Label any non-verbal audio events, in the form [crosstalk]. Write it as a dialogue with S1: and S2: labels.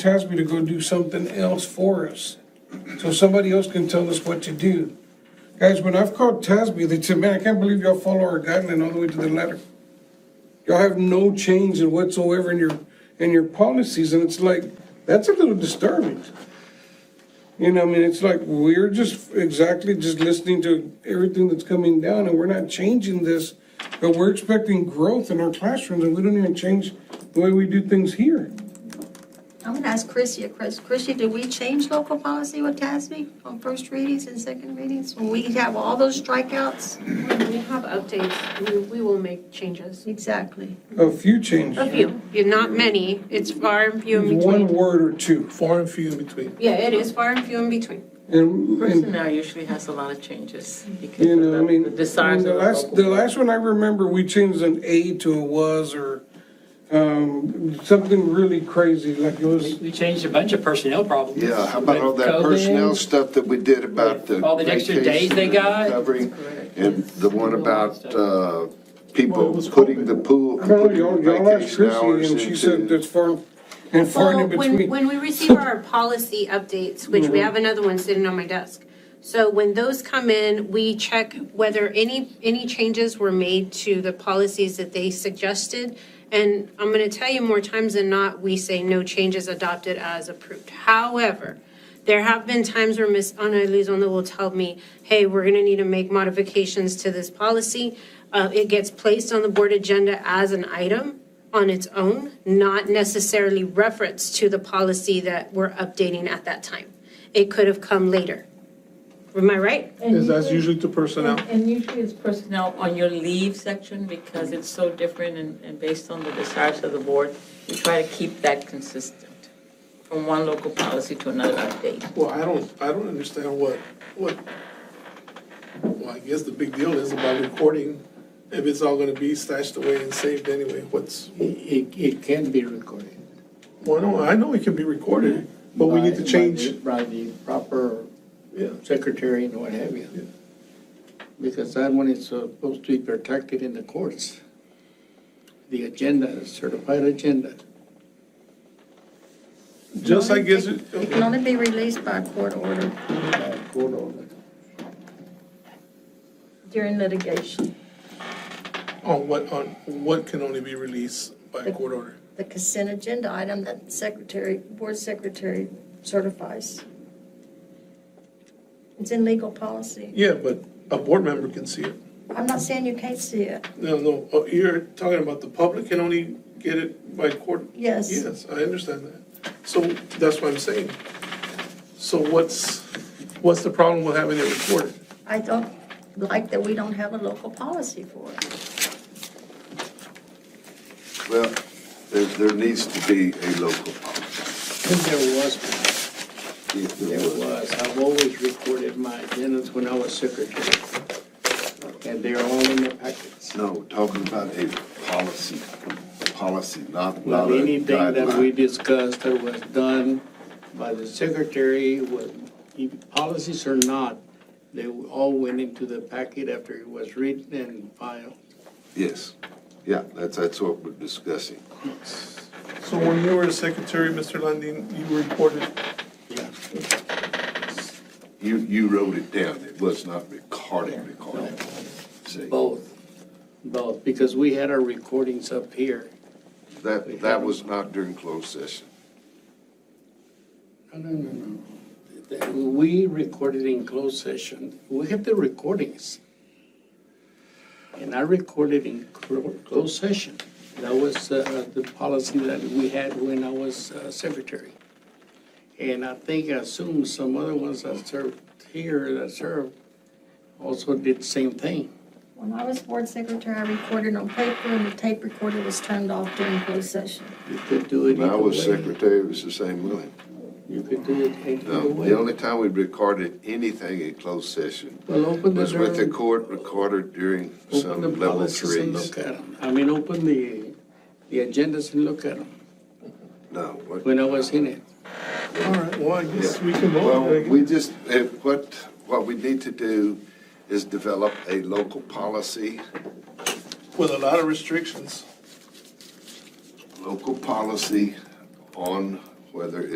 S1: Tasby to go do something else for us, so somebody else can tell us what to do. Guys, when I've called Tasby, they said, man, I can't believe y'all follow our guideline all the way to the letter. Y'all have no change in whatsoever in your, in your policies, and it's like, that's a little disturbing. You know, I mean, it's like, we're just exactly just listening to everything that's coming down, and we're not changing this, but we're expecting growth in our classrooms, and we don't even change the way we do things here.
S2: I'm gonna ask Chrissy, Chris, Chrissy, did we change local policy with TASB on first readings and second readings? When we have all those strikeouts?
S3: When we have updates, we, we will make changes.
S2: Exactly.
S1: A few changes,
S3: A few, Yeah, not many, it's far and few in
S1: one
S3: between.
S1: word or two,
S4: Far and few in between.
S3: Yeah, it is far and few in between.
S1: and, and
S5: Personnel usually has a lot of changes because
S1: You
S5: of
S1: know, I
S5: the-
S1: mean,
S5: the
S1: I
S5: desires
S1: mean,
S5: of the
S1: the last, the
S5: local.
S1: last one I remember, we changed an A to a was or, um, something really crazy, like it
S6: We-
S1: was,
S6: We changed a bunch of personnel problems.
S7: Yeah, how about all that
S6: With COVID,
S7: personnel stuff that we did about the.
S6: All the extra days they
S7: vacation
S6: got?
S7: Covering, and the one about, uh,
S4: Well,
S7: people
S4: it was
S7: putting
S4: COVID.
S7: the pool,
S1: I don't know,
S7: putting
S1: y'all, y'all asked
S7: vacation hours
S1: Chrissy and she said
S7: into.
S1: that's far, and far
S3: Well,
S1: and in
S3: when,
S1: between. Mm-hmm.
S3: when we
S1: [laughs]
S3: receive our policy updates, which we have another one sitting on my desk. So when those come in, we check whether any, any changes were made to the policies that they suggested. And I'm gonna tell you more times than not, we say no changes adopted as approved. However, there have been times where Ms. Ana Elizondo will tell me, hey, we're gonna need to make modifications to this policy. Uh, it gets placed on the board agenda as an item on its own, not necessarily reference to the policy that we're updating at that time. It could have come later. Am I right?
S4: Is that's
S5: Mm-hmm.
S4: usually to personnel.
S5: And usually it's personnel on your leave section because it's so different and, and based on the desires of the board. We try to keep that consistent from one local policy to another update.
S4: Well, I don't, I don't understand what, what, well, I guess the big deal is about recording, if it's all gonna be stashed away and saved anyway, what's,
S8: It, it can be recorded.
S4: well, no, I know it can be recorded, but we need to
S8: by- by the-
S4: change,
S8: By the proper
S4: yeah.
S8: secretary and what have
S4: Yeah.
S8: you. Because that one is supposed to be protected in the courts. The agenda, certified agenda.
S4: Just I guess, it-
S2: It can only be released by court order
S8: uh, court order.
S2: during litigation,
S4: on what, on what can only be released by a court order.
S2: the consent agenda item that secretary, board secretary certifies. It's in legal policy.
S4: Yeah, but a board member can see it.
S2: I'm not saying you can't see it,
S4: No, no, oh, you're talking about the public can only get it by court
S2: yes.
S4: Yes, I understand that. So that's what I'm saying. So what's, what's the problem with having it recorded?
S2: I don't like that we don't have a local policy for it.
S7: Well, there, there needs to be a local policy.
S8: Because there was,
S7: if there
S8: there
S7: was.
S8: was, I've always recorded my agendas when I was secretary. And they're all in the packets.
S7: No, we're talking about a policy, policy, not, not
S8: Well,
S7: a
S8: anything that we
S7: guideline.
S8: discussed that was done by the secretary, was, if policies or not, they all went into the packet after it was written and filed.
S7: Yes, yeah, that's, that's what we're discussing.
S4: So when you were secretary, Mr. Landine, you reported,
S8: Yeah.
S7: You, you wrote it down, it was not recorded, recorded. See,
S8: Both, both, because we had our recordings up here.
S7: that, that was not during closed session.
S8: No, no, no, no. That- We recorded in closed session. We have the recordings. And I recorded in clo- closed session. That was uh, the policy that we had when I was uh, secretary. And I think, I assume some other ones that served here, that served, also did the same thing.
S2: When I was board secretary, I recorded on paper and the tape recorder was turned off during closed session.
S8: You could do it
S7: When I
S8: either
S7: was
S8: way.
S7: secretary, it was the same way.
S8: You could do it either
S7: No, the
S8: way.
S7: only time we recorded anything in closed session
S8: Well, open the
S7: was with the
S8: door.
S7: court recorder during
S8: Open the
S7: some level
S8: policies and
S7: threes.
S8: look at them. I mean, open the, the agendas and look at them
S7: No. what-
S8: when I was in it.
S4: all right, well, I guess we can
S7: Well,
S4: vote.
S7: we just, if, what, what we need to do is develop a local policy,
S4: With a lot of restrictions.
S7: local policy on whether